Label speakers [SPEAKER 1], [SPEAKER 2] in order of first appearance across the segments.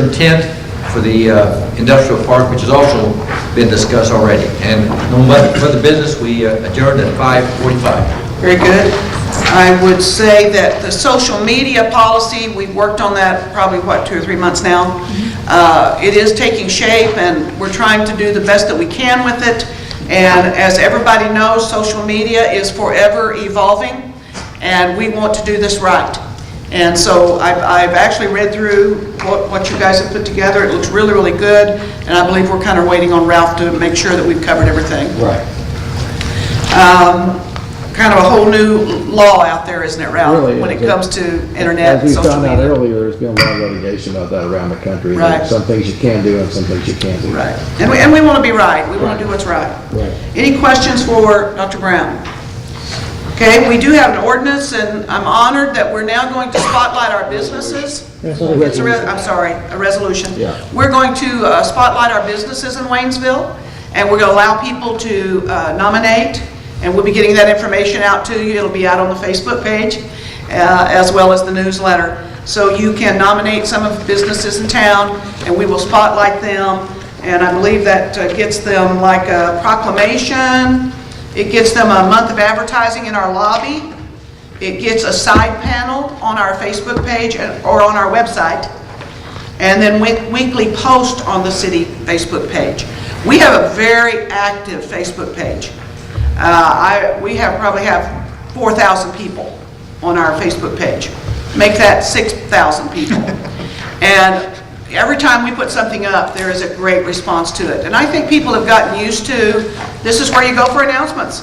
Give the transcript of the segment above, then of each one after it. [SPEAKER 1] intent for the uh, industrial park, which has also been discussed already. And no mu- further business, we uh, adjourned at 5:45.
[SPEAKER 2] Very good. I would say that the social media policy, we've worked on that probably, what, two or three months now? Uh, It is taking shape, and we're trying to do the best that we can with it. And as everybody knows, social media is forever evolving, and we want to do this right. And so I've I've actually read through what what you guys have put together. It looks really, really good, and I believe we're kind of waiting on Ralph to make sure that we've covered everything
[SPEAKER 3] Right.
[SPEAKER 2] kind of a whole new law out there, isn't it, Ralph?
[SPEAKER 3] Really
[SPEAKER 2] When it
[SPEAKER 3] is. It-
[SPEAKER 2] comes to internet
[SPEAKER 3] As
[SPEAKER 2] and
[SPEAKER 3] we
[SPEAKER 2] social
[SPEAKER 3] found out
[SPEAKER 2] media.
[SPEAKER 3] earlier, there's been a lot of litigation about that around the country. and
[SPEAKER 2] Right.
[SPEAKER 3] Some things you can do and some things you can't do.
[SPEAKER 2] Right. And we, and we want to be right. We want to do what's right.
[SPEAKER 3] Right.
[SPEAKER 2] Any questions for Dr. Brown? Okay, we do have an ordinance, and I'm honored that we're now going to spotlight our businesses. It's a re- I'm sorry, a resolution.
[SPEAKER 3] Yeah.
[SPEAKER 2] We're going to uh, spotlight our businesses in Waynesville, and we're going to allow people to uh, nominate, and we'll be getting that information out to you. It'll be out on the Facebook page, uh, as well as the newsletter. So you can nominate some of the businesses in town, and we will spotlight them, and I believe that uh, gets them like a proclamation, it gets them a month of advertising in our lobby, it gets a side panel on our Facebook page and- or on our website, and then we- weekly post on the city Facebook page. We have a very active Facebook page. Uh, I, we have, probably have 4,000 people on our Facebook page. Make that 6,000 people. And every time we put something up, there is a great response to it. And I think people have gotten used to, this is where you go for announcements.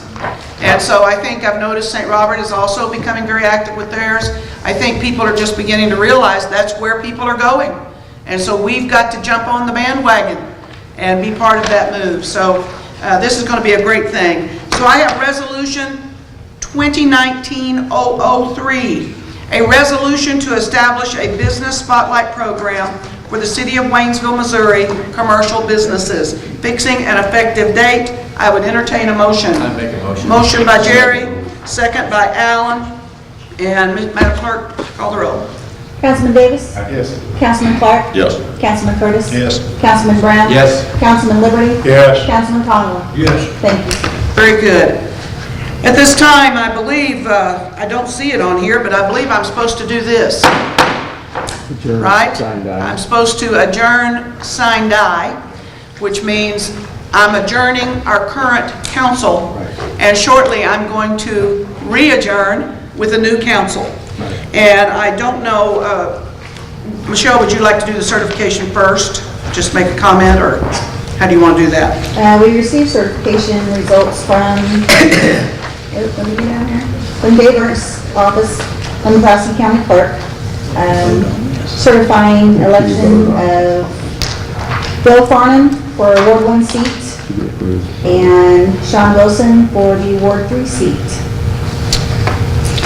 [SPEAKER 2] And so I think I've noticed St. Robert is also becoming very active with theirs. I think people are just beginning to realize that's where people are going. And so we've got to jump on the bandwagon and be part of that move. So uh, this is going to be a great thing. So I have Resolution 2019-003, a resolution to establish a business spotlight program for the city of Waynesville, Missouri, commercial businesses, fixing an effective date. I would entertain a motion.
[SPEAKER 1] I make a motion.
[SPEAKER 2] Motion by Jerry, second by Allen, and Madam Clerk, call the roll.
[SPEAKER 4] Councilman Davis?
[SPEAKER 5] Yes.
[SPEAKER 4] Councilman Clark?
[SPEAKER 5] Yes.
[SPEAKER 4] Councilman Curtis?
[SPEAKER 5] Yes.
[SPEAKER 4] Councilman Brown?
[SPEAKER 1] Yes.
[SPEAKER 4] Councilman Liberty?
[SPEAKER 5] Yes.
[SPEAKER 4] Councilman Conlon?
[SPEAKER 5] Yes.
[SPEAKER 4] Thank you.
[SPEAKER 2] Very good. At this time, I believe, uh, I don't see it on here, but I believe I'm supposed to do this.
[SPEAKER 3] Sure.
[SPEAKER 2] right?
[SPEAKER 3] Signed out.
[SPEAKER 2] I'm supposed to adjourn, sign die, which means I'm adjourning our current council, and shortly I'm going to re-adjourn with a new council. And I don't know, uh, Michelle, would you like to do the certification first? Just make a comment, or how do you want to do that?
[SPEAKER 4] Uh, we received certification results from, oh, let me get down here, from Davis Office, from the Boston County Clerk, um, certifying election of Bill Farnham for Ward One seat and Sean Wilson for the Ward Three seat.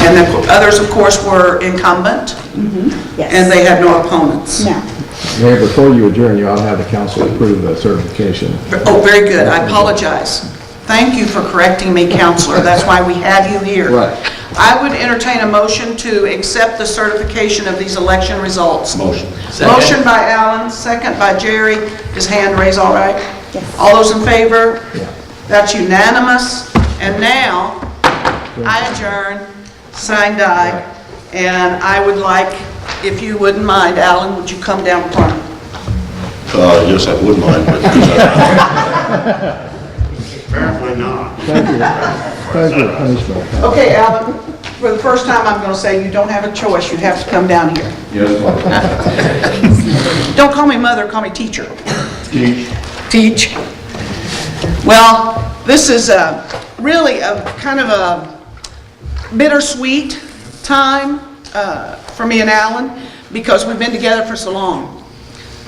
[SPEAKER 2] And the others, of course, were incumbent,
[SPEAKER 4] Yes.
[SPEAKER 2] and they had no opponents.
[SPEAKER 4] No.
[SPEAKER 3] Mayor, before you adjourn, you ought to have the council approve the certification.
[SPEAKER 2] Oh, very good, I apologize. Thank you for correcting me, counselor, that's why we have you here.
[SPEAKER 3] Right.
[SPEAKER 2] I would entertain a motion to accept the certification of these election results. Motion.
[SPEAKER 1] Second.
[SPEAKER 2] Motion by Allen, second by Jerry. His hand raised, all right?
[SPEAKER 4] Yes.
[SPEAKER 2] All those in favor?
[SPEAKER 3] Yeah.
[SPEAKER 2] That's unanimous. And now, I adjourn, signed I, and I would like, if you wouldn't mind, Allen, would you come down front?
[SPEAKER 5] Uh, yes, I would mind, but. Apparently not.
[SPEAKER 3] Thank you. Thank you, Commissioner.
[SPEAKER 2] Okay, Alan, for the first time, I'm going to say you don't have a choice, you have to come down here. Don't call me mother, call me teacher. Teach. Well, this is a, really a kind of a bittersweet time uh, for me and Alan because we've been together for so long.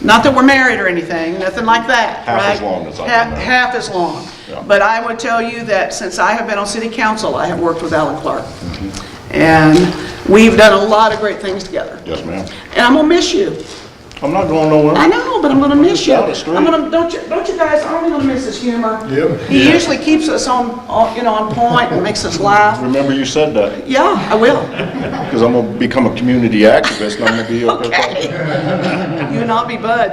[SPEAKER 2] Not that we're married or anything, nothing like that,
[SPEAKER 5] Half
[SPEAKER 2] right?
[SPEAKER 5] as long as I've been
[SPEAKER 2] Half-
[SPEAKER 5] married.
[SPEAKER 2] Half as long.
[SPEAKER 5] Yeah.
[SPEAKER 2] But I would tell you that since I have been on city council, I have worked with Alan Clark.
[SPEAKER 5] Mm-hmm.
[SPEAKER 2] And we've done a lot of great things together.
[SPEAKER 5] Yes, ma'am.
[SPEAKER 2] And I'm gonna miss you.
[SPEAKER 5] I'm not going nowhere.
[SPEAKER 2] I know, but I'm gonna miss you.
[SPEAKER 5] Down the street.
[SPEAKER 2] I'm gonna, don't you, don't you guys, aren't you gonna miss his humor?
[SPEAKER 5] Yep.
[SPEAKER 2] He usually keeps us on, on, you know, on point and makes us laugh.
[SPEAKER 5] Remember you said that,
[SPEAKER 2] Yeah, I will.
[SPEAKER 5] because I'm gonna become a community activist, and I'm gonna be up there talking.
[SPEAKER 2] Okay. You and I'll be buds.